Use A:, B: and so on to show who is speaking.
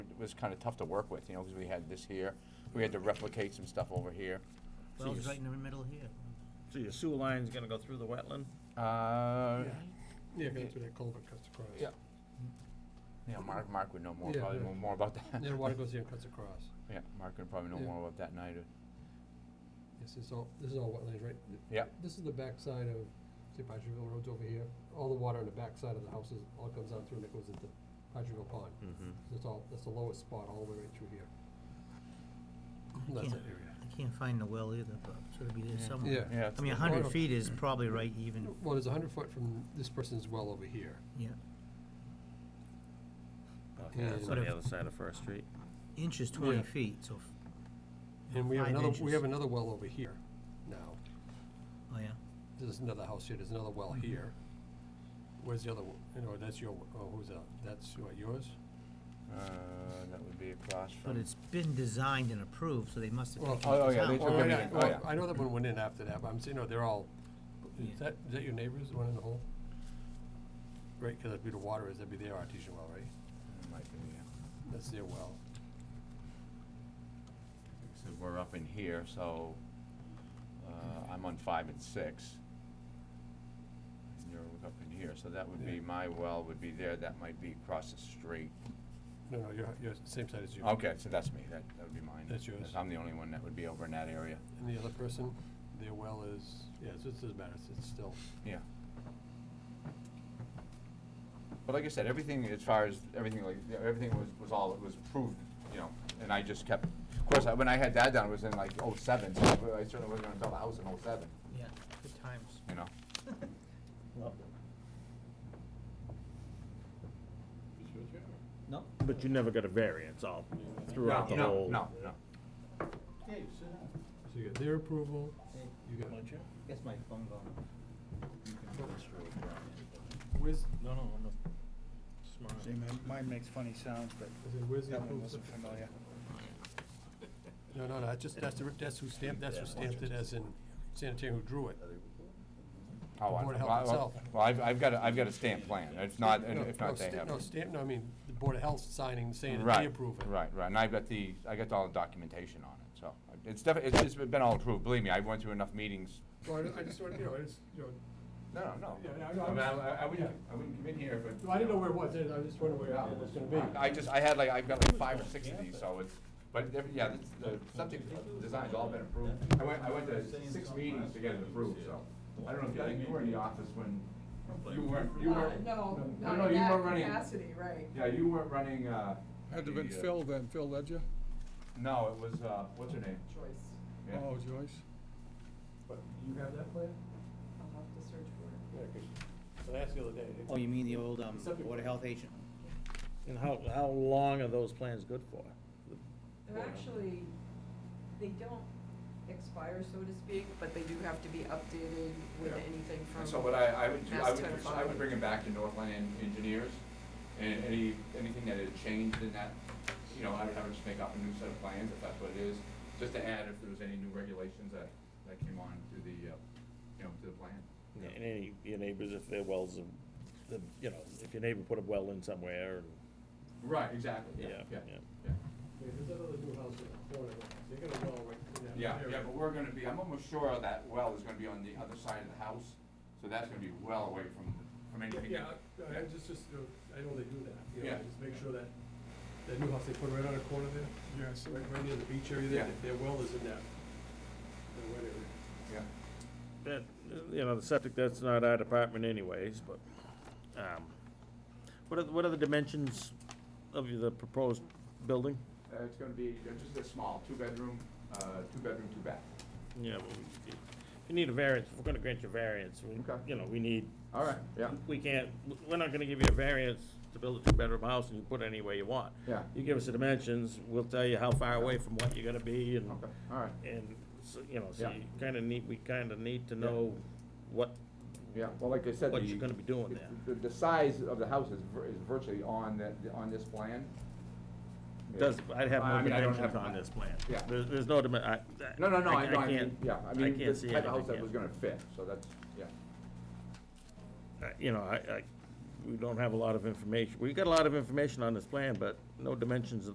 A: was kind of tough to work with, you know, because we had this here, we had to replicate some stuff over here.
B: Well, it's
C: Jeez.
B: right in the middle here.
C: So your sewer line's gonna go through the wetland?
A: Uh,
D: Yeah, because that's where that culvert cuts across.
A: Yeah. yeah, Mark, Mark would know more,
D: Yeah,
A: probably
D: yeah.
A: know more about that.
D: And then water goes here and cuts across.
A: Yeah, Mark would probably know
D: Yeah.
A: more about that night, or,
D: This is all, this is all wetlands, right? Th-
A: yeah,
D: This is the backside of, say, Patcherville Road's over here. All the water on the backside of the houses all comes down through and it goes into Patcherville Pond.
C: Mm-hmm.
D: That's all, that's the lowest spot all the way right through here.
B: I
D: That's
B: can't,
D: that area.
B: I can't find the well either, but it's gotta be there
A: Yeah.
B: somewhere.
D: Yeah.
A: yeah.
B: I mean, a
D: Water.
B: hundred feet is probably right even,
D: Well, there's a hundred foot from this person's well over here.
B: yeah.
C: Okay, that's on
B: But
C: the
B: if-
C: other side of First Street.
B: Inch is twenty
D: Yeah.
B: feet, so, f-
D: And we have
B: Five
D: another, we
B: inches.
D: have another well over here now.
B: oh, yeah.
D: There's another house here, there's another well here. Where's the other, one? you know, that's your, oh, who's that? That's what, yours?
A: Uh, that would be across from.
B: But it's been designed and approved, so they must have
D: Well,
B: taken it
A: oh, oh,
B: down.
A: yeah, they
D: Well,
A: took
D: right,
A: everything.
D: I-
A: Oh,
D: well,
A: yeah.
D: I know that one went in after that, but I'm saying, no, they're all,
B: Yeah.
D: is that, is that your neighbors, the one in the hole? Right, because that'd be the water, is that'd be their artesian well, right?
A: It might be, yeah.
D: That's their well.
A: So we're up in here, so, uh, I'm on five and six. And you're up in here, so that would be,
D: Yeah.
A: my well would be there, that might be across the street.
D: No, no, you're, you're same side as you.
A: Okay, so that's me, that, that would be mine.
D: That's yours.
A: I'm the only one that would be over in that area,
D: And the other person, their well is, yeah, it doesn't matter, it's- it's still.
A: yeah. But like I said, everything, as far as, everything like, yeah, everything was, was all, was approved, you know, and I just kept, of course, I- when I had that done, it was in like oh seven, so I certainly wasn't gonna build a house in oh seven,
B: Yeah, good times.
A: you know?
B: No?
C: But you never got a variance all throughout the
A: No,
C: whole.
A: No, no, no.
D: So you got their approval, you got,
B: Guess my phone gone.
D: where's,
E: No, no, no. Smart.
F: See, mine- mine makes funny sounds, but
D: is it, where's the
F: that one
D: approval?
F: wasn't familiar.
D: No, no, no, that's just, that's the, that's who stamped, that's who stamped it as in sanitarian who drew it.
A: Oh, I-
D: Board of
A: well,
D: Health
A: well,
D: itself.
A: Well, I've, I've got a, I've got a stamp plan, if not, and
D: No,
A: if
D: no,
A: not, they
D: sta-
A: have.
D: No,
A: it.
D: stamp, no, I mean, the Board of Health signing, saying that they
A: Right,
D: approve it.
A: Right, right, and I've got the, I got all the documentation on it, so, it's definitely, it's, it's been all approved, believe me, I went through enough meetings.
D: Well, I- I just want, you know, it's, you know,
A: No, no, no.
D: Yeah,
A: I
D: I know, I
A: mean,
D: was-
A: I, I wouldn't, I wouldn't come in here if it.
D: well, I didn't know where it was, I was just wondering where it was gonna be.
A: I just, I had like, I've got like five or six of these, so it's, but, every- yeah, this- the subject design's all been approved. I went, I went to six meetings to get it approved, so, I don't know if, you- I think you were in the office when, you weren't, you
G: Uh,
A: weren't.
G: No,
A: No,
G: not
A: no,
G: in
A: you
G: that
A: weren't running.
G: capacity, right.
A: Yeah, you weren't running, uh.
H: Had to
A: the,
H: been
A: uh,
H: Phil then, Phil Ledger?
A: No, it was, uh, what's her name?
G: Choice.
A: Yeah.
H: Oh, Joyce?
D: You have that plan?
G: I'll have to search for it.
D: Yeah, 'cause I asked the other day.
C: Oh,
B: you mean the old, um,
D: Board of
B: Health agent?
C: And how, how long are those plans good for?
G: They're actually, they don't expire, so to speak, but they do have to be updated with
A: Yeah.
G: anything from.
A: And so what I, I would do, I
G: Mass
A: would,
G: Tech
A: I would bring it back to Northland Engineers, and any, anything that had changed in that, you know, I would have them just make up a new set of plans, if that's what it is, just to add if there was any new regulations that, that came on to the, uh, you know, to the plan.
C: And any, your neighbors, if their wells, are- the, you know, if your neighbor put a well in somewhere, and,
A: Right, exactly,
C: yeah,
A: yeah, yeah,
C: yeah.
A: yeah.
D: There's that other new house in the corner, they got a well right in that
A: Yeah, yeah, but we're gonna be, I'm almost sure that well is gonna be on the other side of the house, so that's gonna be well away from, from anything.
D: Yeah, I, I just, just, you know, I know they do that, you know,
A: Yeah.
D: just make sure that, that new house they put right on the corner there.
H: Yes.
D: Right, right near the beach area there,
A: Yeah.
D: their well is in that, that wet area.
A: Yeah.
C: That, you know, the septic, that's not our department anyways, but, um, what are, what are the dimensions of the proposed building?
A: Uh, it's gonna be uh, just a small, two-bedroom, uh, two-bedroom, two-bath.
C: Yeah, well, we, we need a variance, if we're gonna grant you a variance, we,
A: Okay.
C: you know, we need.
A: All right, yeah.
C: We can't, we're not gonna give you a variance to build a two-bedroom house and you put it any way you want.
A: Yeah.
C: You give us the dimensions, we'll tell you how far away from what you're gonna be and,
A: Okay, all right,
C: and, so, you know, so
A: Yeah.
C: you kinda need, we kinda need to
A: Yeah.
C: know what,
A: yeah, well, like I said,
C: what you're
A: the,
C: gonna be doing there.
A: the, the size of the house is vir- is virtually on that, on this plan. Yeah.
C: Does, I'd have
A: I
C: no
A: mean, I don't
C: dimensions
A: have-
C: on this plan.
A: Yeah.
C: There's, there's no dimen, I.
A: No, no, no, I know, I mean,
C: can't-
A: yeah, I mean,
C: can't
A: this
C: see
A: type of house
C: anything,
A: that
C: yeah.
A: was gonna fit, so that's, yeah.
C: I- Uh, you know, I, I, we don't have a lot of information. We've got a lot of information on this plan, but no dimensions of